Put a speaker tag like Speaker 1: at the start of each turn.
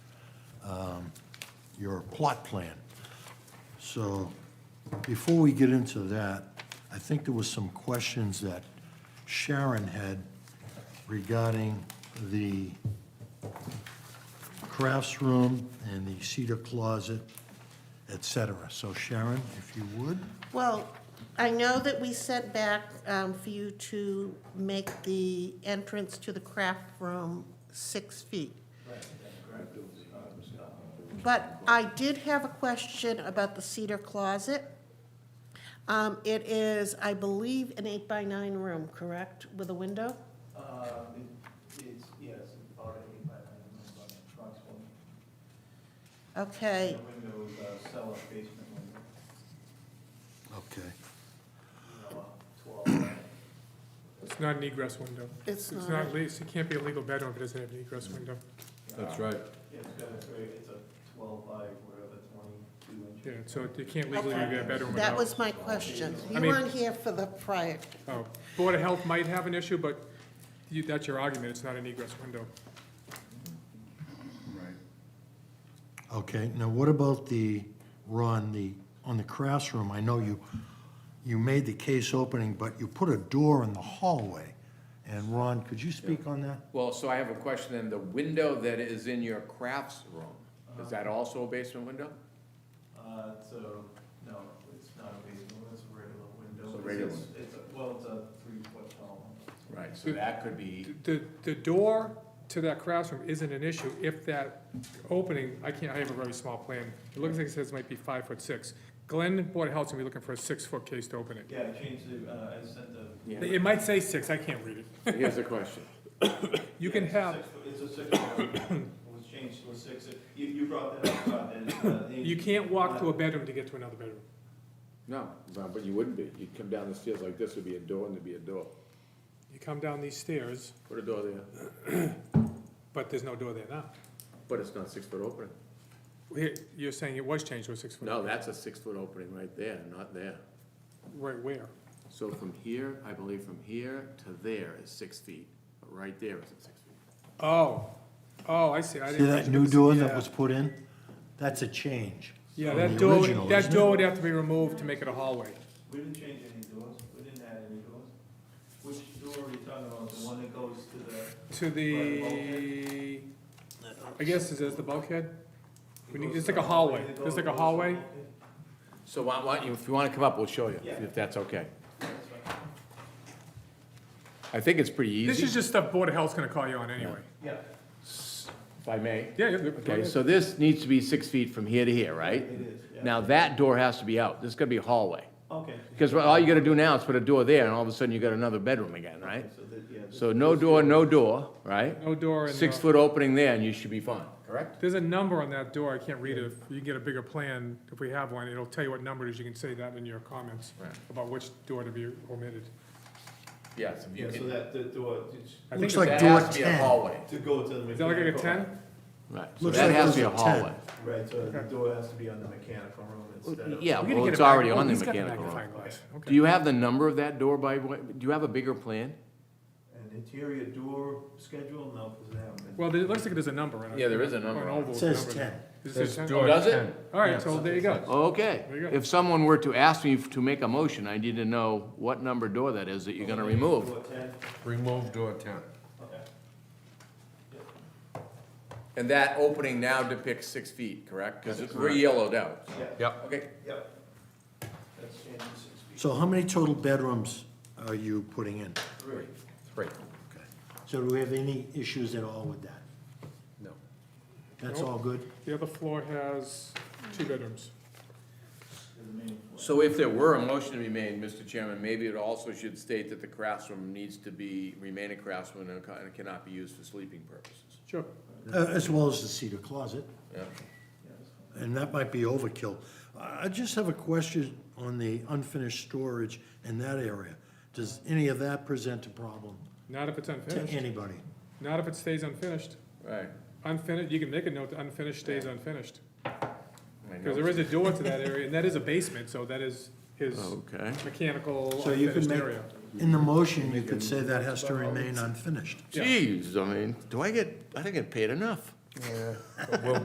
Speaker 1: your plot plan. So before we get into that, I think there was some questions that Sharon had regarding the crafts room and the cedar closet, et cetera. So Sharon, if you would,
Speaker 2: Well, I know that we set back um, for you to make the entrance to the craft room six feet. But I did have a question about the cedar closet. Um, It is, I believe, an eight by nine room, correct, with a window?
Speaker 3: Um, it- it's, yes, already by, by approximately.
Speaker 2: Okay,
Speaker 3: The window is a cellar basement window,
Speaker 1: okay.
Speaker 3: you know, a twelve.
Speaker 4: It's not an egress window.
Speaker 2: it's
Speaker 4: It's
Speaker 2: not,
Speaker 4: not, le- it can't be a legal bedroom if it doesn't have an egress window.
Speaker 5: That's right.
Speaker 3: It's got a, very- it's a twelve by whatever, twenty-two inch.
Speaker 4: Yeah, so it can't legally be a bedroom
Speaker 2: that
Speaker 4: without.
Speaker 2: was my question.
Speaker 4: I
Speaker 2: You
Speaker 4: mean-
Speaker 2: weren't here for the prior,
Speaker 4: Oh, Board of Health might have an issue, but you, that's your argument, it's not an egress window.
Speaker 1: Okay, now what about the, Ron, the, on the crafts room, I know you, you made the case opening, but you put a door in the hallway. And Ron, could you speak on that?
Speaker 5: Well, so I have a question, then the window that is in your crafts room, is that
Speaker 6: Uh-huh.
Speaker 5: also a basement window?
Speaker 3: Uh, so, no, it's not a basement, it's a regular window.
Speaker 5: It's a regular
Speaker 3: It's, it's a- well, it's a three-foot tall one.
Speaker 5: Right, so that could be,
Speaker 4: The, the door to that classroom isn't an issue if that opening, I can't, I have a very small plan. It looks like it says it might be five foot six. Glenn, Board of Health's gonna be looking for a six foot case to open it.
Speaker 3: Yeah, I changed the, uh, I sent the.
Speaker 5: yeah,
Speaker 4: It might say six, I can't read it.
Speaker 5: here's the question.
Speaker 4: You
Speaker 3: Yeah,
Speaker 4: can
Speaker 3: it's a
Speaker 4: have,
Speaker 3: six-foot- It's a six-foot, window. it was changed to a six, you, you brought that up, uh, that, uh. the-
Speaker 4: you can't walk to a bedroom to get to another bedroom.
Speaker 6: No, no, but you wouldn't be. You'd come down the stairs like this, there'd be a door and there'd be a door.
Speaker 4: You come down these stairs,
Speaker 6: Put a door there,
Speaker 4: but there's no door there now.
Speaker 6: but it's not six foot opening.
Speaker 4: Here, You're saying it was changed to a six foot?
Speaker 6: No, that's a six foot opening right there, not there.
Speaker 4: Right where?
Speaker 6: So from here, I believe from here to there is six feet, but right there isn't six feet.
Speaker 4: Oh, oh, I see. I
Speaker 1: See
Speaker 4: didn't-
Speaker 1: that new door that
Speaker 4: Yeah.
Speaker 1: was put in? That's a change.
Speaker 4: Yeah,
Speaker 1: from
Speaker 4: that
Speaker 1: the
Speaker 4: door,
Speaker 1: original,
Speaker 4: that
Speaker 1: isn't it?
Speaker 4: door would have to be removed to make it a hallway.
Speaker 3: We didn't change any doors, we didn't add any doors. Which door are you talking about, the one that goes to the?
Speaker 4: To the, I guess, is this the bulkhead? We need- It's like a hallway. It's like a hallway.
Speaker 5: So why, why, don't you- if you wanna come up, we'll show you,
Speaker 3: Yeah.
Speaker 5: if that's okay. I think it's pretty
Speaker 4: This is
Speaker 5: easy,
Speaker 4: just stuff Board of Health's gonna call you on anyway.
Speaker 3: Yeah.
Speaker 5: if I may.
Speaker 4: Yeah, yeah. go
Speaker 5: Okay,
Speaker 4: ahead.
Speaker 5: so this needs to be six feet from here to here, right?
Speaker 3: It is, yeah.
Speaker 5: Now, that door has to be out, this is gonna be a hallway,
Speaker 3: Okay.
Speaker 5: because all you gotta do now is put a door there, and all of a sudden you got another bedroom again, right?
Speaker 3: So that, yeah. this-
Speaker 5: So no door, no door, right?
Speaker 4: No door and.
Speaker 5: Six
Speaker 4: no-
Speaker 5: foot opening there, and you should be fine, correct?
Speaker 4: There's a number on that door. I can't read it. If you can get a bigger plan, if we have one, it'll tell you what number it is. You can say that in your comments
Speaker 5: Right.
Speaker 4: about which door to be omitted.
Speaker 5: Yes.
Speaker 3: Yeah, so that, the door, it's-
Speaker 4: I
Speaker 1: Looks
Speaker 4: think it's-
Speaker 1: like door ten.
Speaker 5: hallway.
Speaker 3: to go to the.
Speaker 4: Is that like a
Speaker 3: mechanical-
Speaker 4: ten?
Speaker 5: Right, so
Speaker 1: Looks
Speaker 5: that
Speaker 1: like
Speaker 5: has to be a
Speaker 1: those are 10.
Speaker 5: hallway.
Speaker 3: Right, so the door has to be on the mechanical room instead of.
Speaker 5: Yeah,
Speaker 4: We gotta
Speaker 5: well,
Speaker 4: get
Speaker 5: it's
Speaker 4: a mag-
Speaker 5: already
Speaker 4: oh,
Speaker 5: on the
Speaker 4: he's got
Speaker 5: mechanical room.
Speaker 4: magnifying glass. Okay.
Speaker 5: Do you have the number of that door by, way- do you have a bigger plan?
Speaker 3: An interior door schedule, no, because they haven't been.
Speaker 4: Well, there- it looks like there's a number on it.
Speaker 5: Yeah, there is a number
Speaker 4: An
Speaker 5: on it.
Speaker 4: oval
Speaker 1: It says
Speaker 4: number.
Speaker 1: ten.
Speaker 4: Is it ten?
Speaker 5: Oh, does it?
Speaker 4: All right, so there you go.
Speaker 5: Okay.
Speaker 4: There you go.
Speaker 5: If someone were to ask me to make a motion, I need to know what number door that is that you're gonna remove.
Speaker 3: Door ten,
Speaker 7: Remove door ten.
Speaker 3: okay.
Speaker 5: And that opening now depicts six feet, correct? Because we're yellowed out.
Speaker 3: Yeah,
Speaker 7: Yep.
Speaker 5: Okay.
Speaker 3: yep. That's changing six feet.
Speaker 1: So how many total bedrooms are you putting in?
Speaker 3: Three.
Speaker 5: Three.
Speaker 1: Okay. So do we have any issues at all with that?
Speaker 7: No.
Speaker 1: That's
Speaker 4: Nope.
Speaker 1: all good?
Speaker 4: The other floor has two bedrooms.
Speaker 3: is the main floor.
Speaker 5: So if there were a motion to be made, Mr. Chairman, maybe it also should state that the craftsroom needs to be, remain a craftsroom and ca- and cannot be used for sleeping purposes.
Speaker 4: Sure.
Speaker 1: Uh, As well as the cedar closet,
Speaker 5: Yeah.
Speaker 1: and that might be overkill. I I just have a question on the unfinished storage in that area. Does any of that present a problem
Speaker 4: Not if it's
Speaker 1: to
Speaker 4: unfinished.
Speaker 1: anybody?
Speaker 4: Not if it stays unfinished.
Speaker 5: Right.
Speaker 4: Unfinished, you can make a note that unfinished stays unfinished.
Speaker 5: I know.
Speaker 4: Because there is a door to that area, and that is a basement, so that is his
Speaker 5: Okay.
Speaker 4: mechanical
Speaker 1: So you can
Speaker 4: unfinished
Speaker 1: make,
Speaker 4: area.
Speaker 1: in the motion, you could say that has to remain unfinished.
Speaker 4: Yeah.
Speaker 5: Jeez, I mean, do I get, I don't get paid enough.
Speaker 7: We'll